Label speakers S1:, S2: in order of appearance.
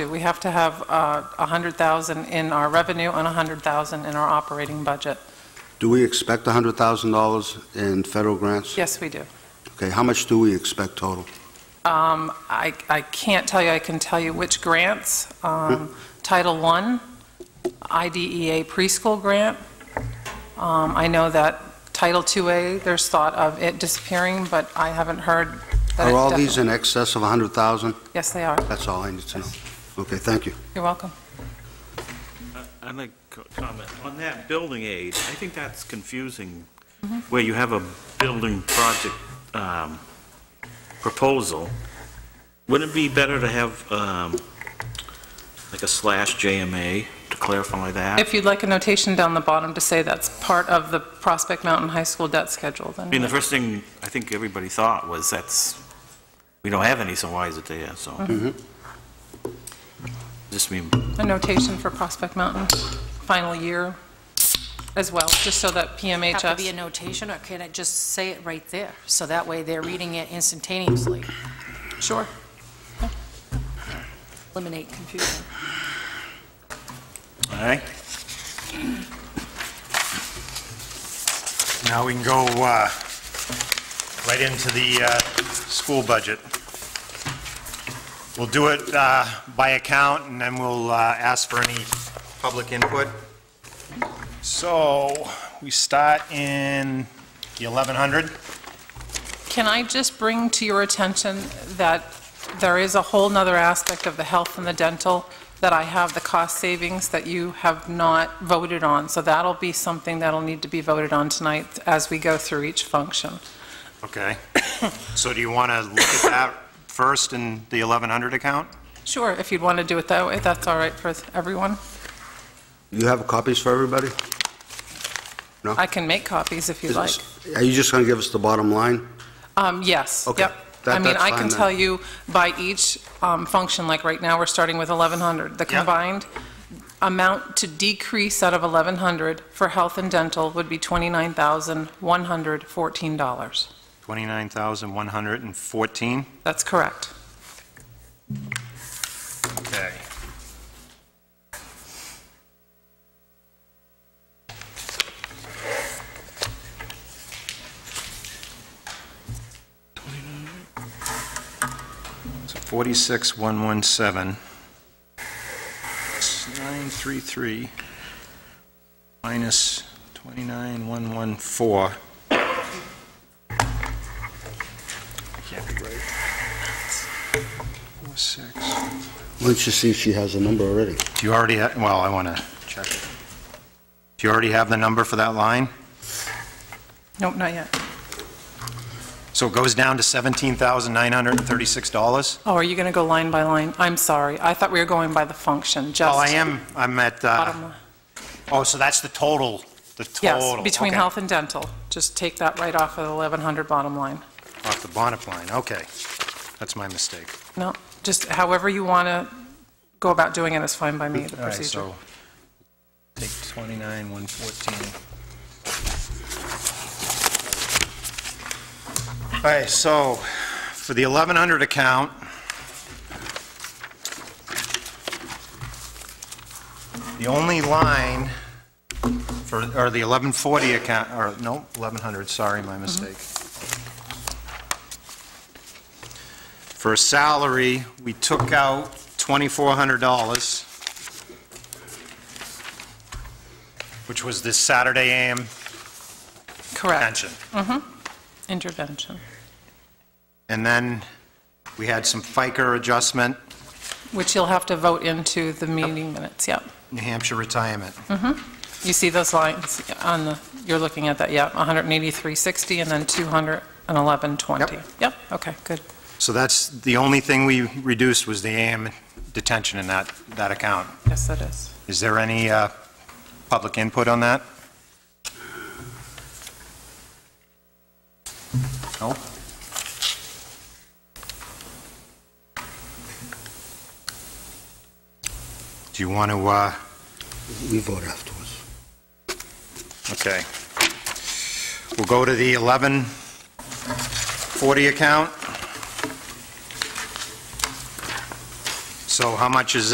S1: We have to have uh, 100,000 in our revenue and 100,000 in our operating budget.
S2: Do we expect $100,000 in federal grants?
S1: Yes, we do.
S2: Okay, how much do we expect total?
S1: Um, I I can't tell you, I can tell you which grants. Um, Title I, IDEA E preschool grant. Um, I know that Title IIA, there's thought of it disappearing, but I haven't heard that it
S2: Are all these
S1: definitely-
S2: in excess of $100,000?
S1: Yes, they are.
S2: That's all I need to know. Okay, thank you.
S1: You're welcome.
S3: I- I'd like to comment, on that building aid, I think that's confusing, where you have a building project um, proposal. Wouldn't it be better to have um, like a slash JMA to clarify that?
S1: If you'd like a notation down the bottom to say that's part of the Prospect Mountain High School debt schedule,
S3: I mean, the
S1: then,
S3: first thing I think everybody thought was that's, we don't have any, so why is it there, so. Just mean,
S1: a notation for Prospect Mountain, final year as well, just so that
S4: Have to be a
S1: PMHS,
S4: notation, or can I just say it right there? So that way, they're reading it instantaneously.
S1: sure,
S4: Eliminate confusion.
S3: all right?
S5: Now we can go uh, right into the uh, school budget. We'll do it uh, by account, and then we'll uh, ask for any public input. So we start in the 1100.
S1: Can I just bring to your attention that there is a whole nother aspect of the health and the dental that I have the cost savings that you have not voted on, so that'll be something that'll need to be voted on tonight as we go through each function.
S5: Okay. So do you want to look at that first in the 1100 account?
S1: Sure, if you'd want to do it that way, that's all right for everyone.
S2: You have copies for everybody?
S1: I can make copies if you'd like.
S2: Are you just going to give us the bottom line?
S1: Um, Yes,
S2: Okay.
S1: yep.
S2: That-
S1: I mean,
S2: that's
S1: I can
S2: fine then.
S1: tell you by each um, function, like right now, we're starting with 1,100. The
S5: Yeah.
S1: combined amount to decrease out of 1,100 for health and dental would be $29,114.
S5: 29,114.
S1: That's correct.
S5: Okay. So 46,117. It's 933 minus 29,114. Can't be right. 46.
S2: Once you see she has a number already.
S5: Do you already, ha- well, I want to check. it. Do you already have the number for that line?
S1: Nope, not yet.
S5: So it goes down to $17,936?
S1: Oh, are you going to go line by line? I'm sorry. I thought we were going by the function,
S5: Oh,
S1: just.
S5: I am, I'm at,
S1: bottom
S5: uh,
S1: line.
S5: oh, so that's the total, the total.
S1: Yes, between
S5: okay.
S1: health and dental. Just take that right off of the 1,100 bottom line.
S5: Off the bonnet line, okay. That's my mistake.
S1: No, just however you want to go about doing it is fine by me, the
S5: All right,
S1: procedure.
S5: so take 29, 114. All right, so for the 1100 account, the only line for, or the 1140 account, or no, 1100, sorry,
S1: Mm-hmm.
S5: my mistake. For a salary, we took out $2,400 which was this Saturday AM
S1: Correct,
S5: pension.
S1: intervention,
S5: And then we had some FICA adjustment,
S1: which you'll have to vote into the meeting minutes, yep.
S5: New Hampshire retirement.
S1: You see those lines on the, you're looking at that, yep, 18360 and then 21120.
S5: Yep.
S1: Yep, okay, good.
S5: So that's, the only thing we reduced was the AM detention in that, that account.
S1: Yes, that is.
S5: Is there any uh, public input on that? No? Do you want to, uh,
S2: We vote afterwards.
S5: Okay. We'll go to the 1140 account. So how much is